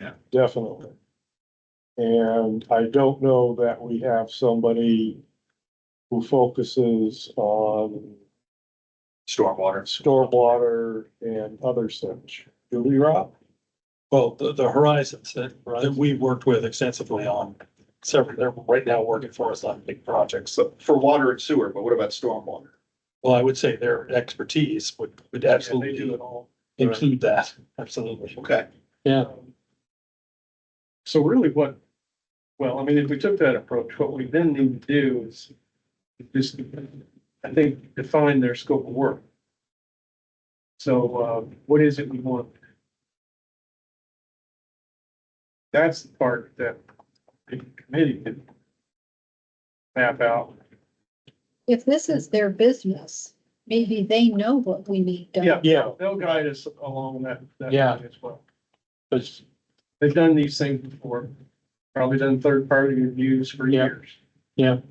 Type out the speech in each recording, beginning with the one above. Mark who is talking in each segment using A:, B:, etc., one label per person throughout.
A: Yeah.
B: Definitely. And I don't know that we have somebody who focuses on
A: stormwater.
B: stormwater and other such. Do we, Rob?
C: Well, the, the horizons that, that we've worked with extensively on several, they're right now working for us on big projects. So,
A: So for water and sewer, but what about stormwater?
C: well, I would say their expertise would, would
A: do
C: absolutely
A: it
C: include that, absolutely.
A: Okay.
B: Yeah.
D: So really what, well, I mean, if we took that approach, what we then need to do is just, I think, define their scope of work. So, uh, what is it we want? That's the part that the committee could map out.
E: If this is their business, maybe they know what we need done.
D: Yeah,
B: Yeah,
D: they'll guide us along that, that
B: Yeah.
D: way as well.
B: it's-
D: They've done these things before, probably done third-party reviews for
B: Yeah.
D: years.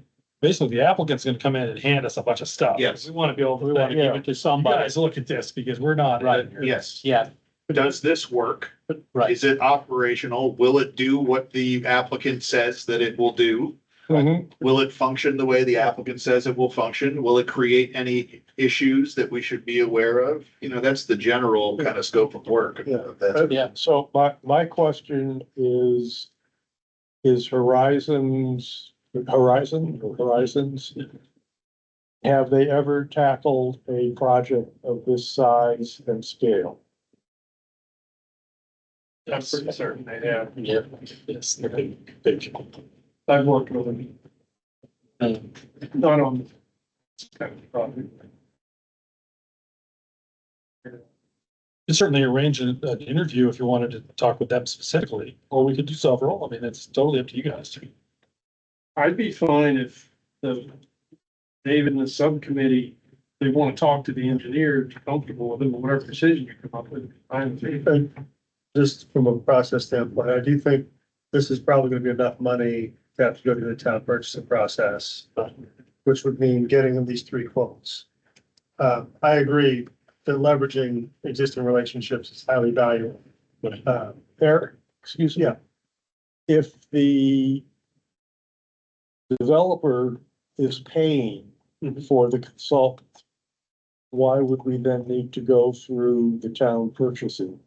C: Basically, the applicant's gonna come in and hand us a bunch of stuff.
A: Yes.
C: We wanna be able
B: we
C: to
B: want to
C: say,
B: give it to
C: you
B: somebody.
C: Um, guys, look at this, because we're not.
B: Right.
A: Uh, Yes.
B: Yeah,
A: Does this work?
B: right.
A: Is it operational? Will it do what the applicant says that it will do?
B: Mhm.
A: Will it function the way the applicant says it will function? Will it create any issues that we should be aware of? You know, that's the general kind of scope of work.
B: Yeah.
A: That's-
B: Yeah, so my, my question is, is Horizons, Horizon, or Horizons? Have they ever tackled a project of this size and scale?
D: I'm pretty certain they have.
C: Yeah, yes, they're big, big.
D: I've worked with them.
C: Um,
D: Not on this kind of property.
C: And certainly arrange an, an interview if you wanted to talk with them specifically, or we could do several, I mean, it's totally up to you guys.
D: I'd be fine if the, David and the subcommittee, they want to talk to the engineer, be comfortable with them, whatever decision you come up with. I'm,
F: just from a process standpoint, I do think this is probably gonna be enough money to have to go through the town purchasing process, um, which would mean getting them these three quotes. Uh, I agree that leveraging existing relationships is highly valuable. Uh,
B: Eric, excuse me.
F: Yeah.
B: If the developer is paying for the consultant, why would we then need to go through the town purchasing?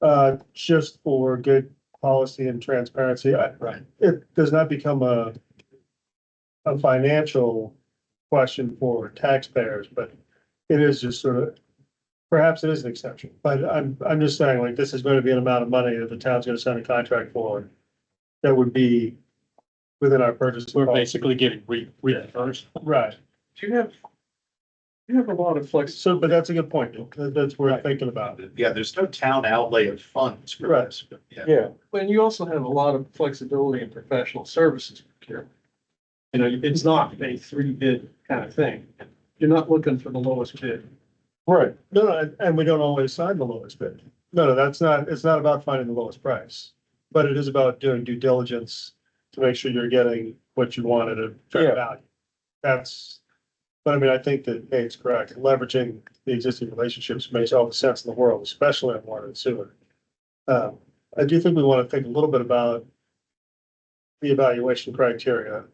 F: uh, just for good policy and transparency, I,
C: Right.
F: it does not become a a financial question for taxpayers, but it is just sort of, perhaps it is an exception, but I'm, I'm just saying, like, this is going to be an amount of money that the town's going to send a contract for that would be within our purchase.
C: We're
F: policy.
C: basically getting re, reimbursed.
F: Right,
D: do you have, you have a lot of flex,
F: so, but that's a good point, That- that's worth thinking about.
A: Yeah, there's no town outlay of funds for
F: Right.
A: this. but yeah.
B: Yeah,
D: and you also have a lot of flexibility in professional services procurement. You know, it's not a three bid kind of thing. You're not looking for the lowest bid.
B: right.
F: No, no, and- and we don't always sign the lowest bid. No, no, that's not, it's not about finding the lowest price, but it is about doing due diligence to make sure you're getting what you want at a
B: Yeah.
F: fair value. That's, but I mean, I think that Nate's correct. Leveraging the existing relationships makes all the sense in the world, especially in water and sewer. Um, I do think we want to think a little bit about the evaluation criteria.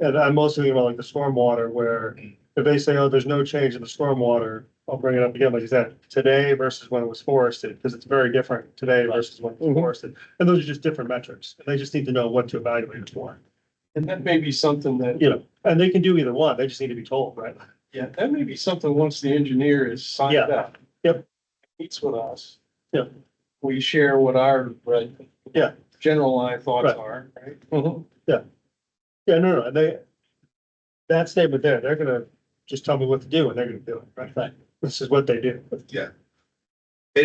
F: And I'm mostly thinking about like the stormwater where if they say, oh, there's no change in the stormwater, I'll bring it up again, like you said, today versus when it was forested, because it's very different today versus when it was
B: Mhm.
F: forested. And those are just different metrics. and They just need to know what to evaluate it for.
D: And that may be something that
F: You know, and they can do either one. They just need to be told, right?
D: Yeah, that may be something, once the engineer is signed
F: Yeah.
D: up.
F: Yep.
D: Meets with us.
F: Yep.
D: We share what our. uh,
C: Right.
F: Yeah.
D: General line thoughts
F: Right.
D: are, right?
F: Yeah, no, no, they, that statement there, they're gonna just tell me what to do and they're gonna do it, right?
C: Right.
F: This is what they do.
A: And,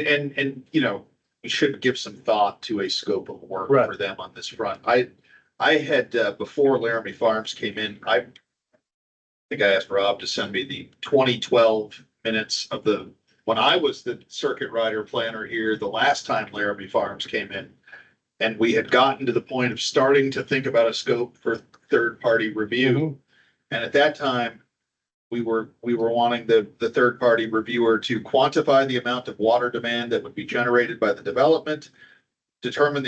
A: and, and, you know, we should give some thought to a scope of work
F: Right.
A: for them on this front. I, I had, uh, before Laramie Farms came in, I think I asked Rob to send me the twenty twelve minutes of the, when I was the circuit rider planner here, the last time Laramie Farms came in. And we had gotten to the point of starting to think about a scope for third-party review. And at that time, we were, we were wanting the, the third-party reviewer to quantify the amount of water demand that would be generated by the development, determine the